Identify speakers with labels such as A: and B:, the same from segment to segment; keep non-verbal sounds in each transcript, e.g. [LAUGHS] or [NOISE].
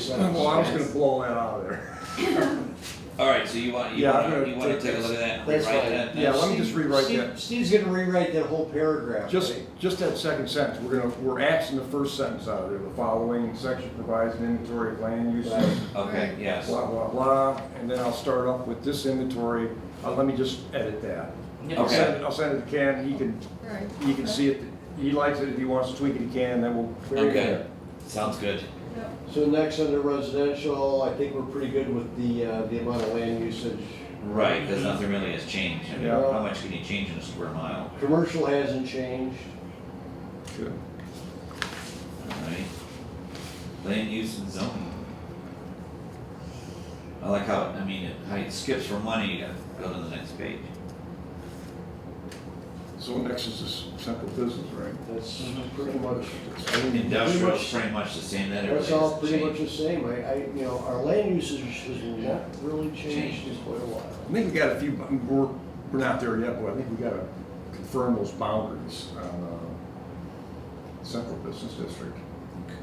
A: sense.
B: Well, I was gonna blow that out of there.
C: All right, so you want, you
B: Yeah, I'm
C: want,
B: gonna
C: you want to
B: take
C: take
B: this.
C: a look at that and
A: That's
C: rewrite
A: fine.
C: that?
B: Yeah,
C: That's-
B: let me just rewrite
A: Steve-
B: that.
A: Steve's gonna rewrite that whole paragraph.
B: Just,
A: right?
B: just that second sentence, we're gonna, we're axing the first sentence out of there, the following section provides an inventory of land use,
A: Right.
C: Okay, yes.
B: blah, blah, blah, and then I'll start off with this inventory, uh, let me just edit that. I'll
C: Okay.
B: send, it- I'll send it to Ken, he can,
D: Right.
B: he can see it, he likes it, if he wants to tweak it, he can, then we'll clear it
C: Okay,
B: there.
C: sounds good.
D: Yep.
A: So next under residential, I think we're pretty good with the, uh, the amount of land usage.
C: Right, because nothing really has changed. I mean,
A: Yeah.
C: how much can you change in a square mile?
A: Commercial hasn't changed.
B: Good.
C: Alright. Land use and zoning. I like how, I mean, it- how it skips from one, you gotta go to the next page.
B: So next is this simple business, right?
A: That's pretty much, I mean, pretty
C: Industrial,
A: much,
C: pretty much the same, that
A: that's
C: everything
A: all
C: has
A: pretty much
C: changed.
A: the same. I, I, you know, our land usage has not really changed in
C: Changed.
A: quite a while.
B: I think we got a few, we're, we're not there yet, but I think we gotta confirm those boundaries on, uh, central business district.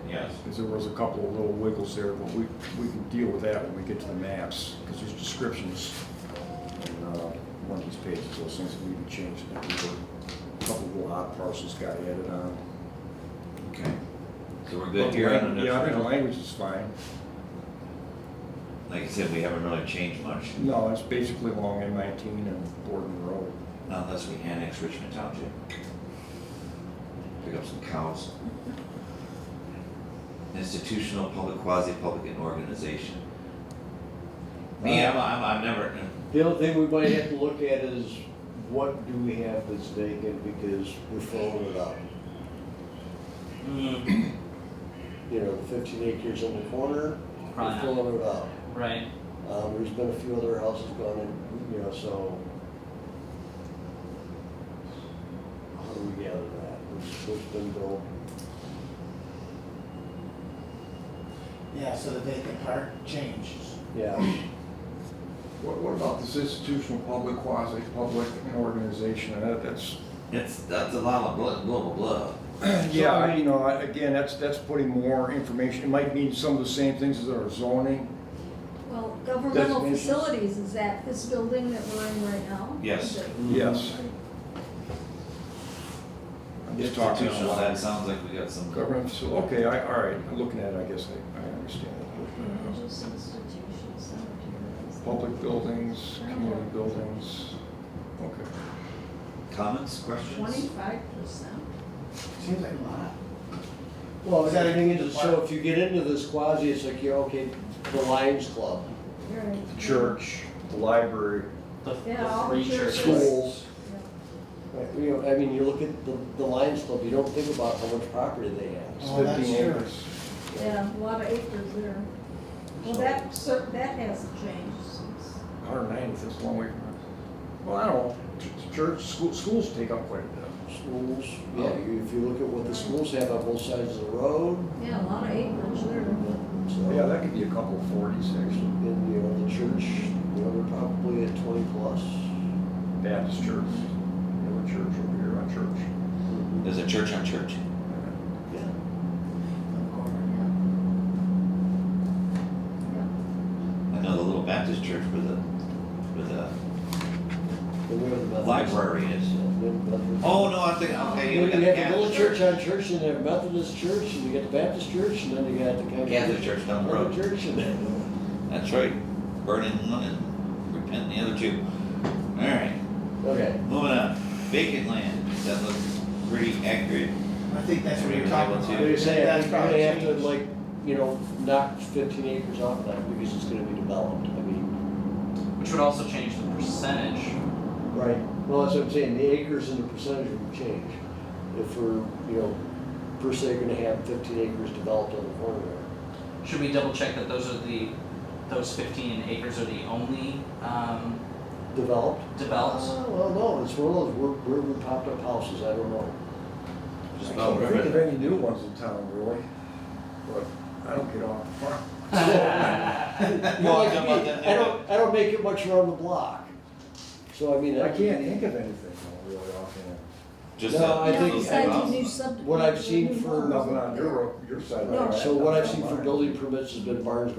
C: Yes,
B: Because there was a couple of little wiggles there, but we, we can deal with that when we get to the maps, because there's descriptions in uh, one of these pages, those things that we can change. and we were- A couple of little odd parcels got added on.
C: okay. So we're
B: But
C: good
B: the
C: here on
B: lang- Yeah, I think the
C: industrial?
B: language is fine.
C: Like I said, we haven't really changed much,
B: No, it's basically along M nineteen and Borden Road.
C: unless we annex Uh, Richmond Township. Pick up some cows. Institutional, public, quasi-public, and organization. Me, I'm, I'm, I'm never, [LAUGHS]
A: The other thing we might have to look at is what do we have that's vacant because we're filling it up.
E: Mm,
A: You know, fifteen acres in the corner, we're
E: Right.
A: filling it up.
E: Right.
A: Um, there's been a few other houses gone in, you know, so. How do we gather that? What's, what's been built?
F: Yeah, so the vacant part changes.
A: Yeah,
B: What, what about this institutional, public, quasi-public, and organization, and that- that's
C: It's, that's a lot of blood, blah, blah, blah.
B: [CLEARS THROAT] Yeah, I- you know, I- again, that's, that's putting more information, it might mean some of the same things as our zoning.
D: Well, governmental
B: Designations.
D: facilities, is that this building that we're in right now?
C: Yes.
D: Is it?
B: Yes. I'm just talking
C: Institutional,
B: about
C: that sounds like we got some.
B: government, so, okay, I, all right, I'm looking at it, I guess I, I understand.
D: Religious institutions, cemeteries.
B: Public buildings, community buildings, okay.
C: Comments, questions?
D: Twenty-five percent?
F: Seems like a lot.
A: well, the thing is, is so if you get into this quasi, it's like, yeah, okay, the Lions Club,
B: The Church, the library,
E: The,
D: Yeah,
E: the
D: all
E: three
D: churches.
E: churches.
B: schools,
A: Right, You know, I mean, you look at the, the Lions Club, you don't think about how much property they have.
B: it's
F: Oh, that's
B: fifteen
F: true.
B: acres.
D: Yeah, a lot of acres there. Well, that, cer- that hasn't changed since.
B: Hundred ninety, that's a long way from us. Well, I don't know, Ch- church, school, schools take up quite a bit.
A: Schools, yeah, you- if you look at what the schools have on both sides of the road,
D: Yeah, a lot of acres there.
A: so.
B: Yeah, that could be a couple of forties, actually,
A: And, you know, the church, you know, they're probably at twenty plus.
B: Baptist church, another church over here, our church.
C: There's a church on church.
A: Yeah.
C: I know the little Baptist church with a, with a,
A: And we have the Methodist.
C: Library is-
A: Yeah, we have the Methodist.
C: oh, no, I think, okay,
A: You
C: you got
A: have
C: the
A: the little
C: Catholic
A: church
C: church.
A: on church, and they have Methodist church, and you got the Baptist church, and then you got the kind of.
C: Catholic church down the road.
A: Church, and then,
C: That's right. Burn in one and repent in the other two. All right,
A: okay.
C: moving on. Vacant land, that looks pretty accurate.
F: I think that's what you're talking about.
C: Yeah.
A: They're saying,
F: That's
A: I'm
F: probably
A: gonna have to
F: changed.
A: like, you know, knock fifteen acres off that, because it's gonna be developed, I mean.
E: Which would also change the percentage.
A: Right. Well, that's what I'm saying, the acres and the percentage would change, if we're, you know, per se gonna have fifteen acres developed on the corner there.
E: Should we double check that those are the, those fifteen acres are the only, um,
A: Developed?
E: developed?
A: Uh, Well, no, it's one of those, we're, we're, we popped up houses, I don't know.
C: Just
B: I
C: about
B: can't think of
C: river.
B: any new ones in town, really, but I don't get off the farm.
F: [LAUGHS]
A: [LAUGHS] You know,
C: I
A: like
C: don't
A: me,
C: want that
A: I don't, I don't make it much around the block, so I mean.
B: I
A: that would
B: can't
A: be-
B: think of anything though, really offhand.
C: Just
A: No,
C: that
A: I
C: you
A: think-
C: look
A: I
C: them
A: think
C: up.
D: Besides new sub.
A: What I've seen
D: new
A: for-
D: homes.
B: Nothing on your, your side.
D: Um, No.
A: So what I've seen for building permits has been Barnes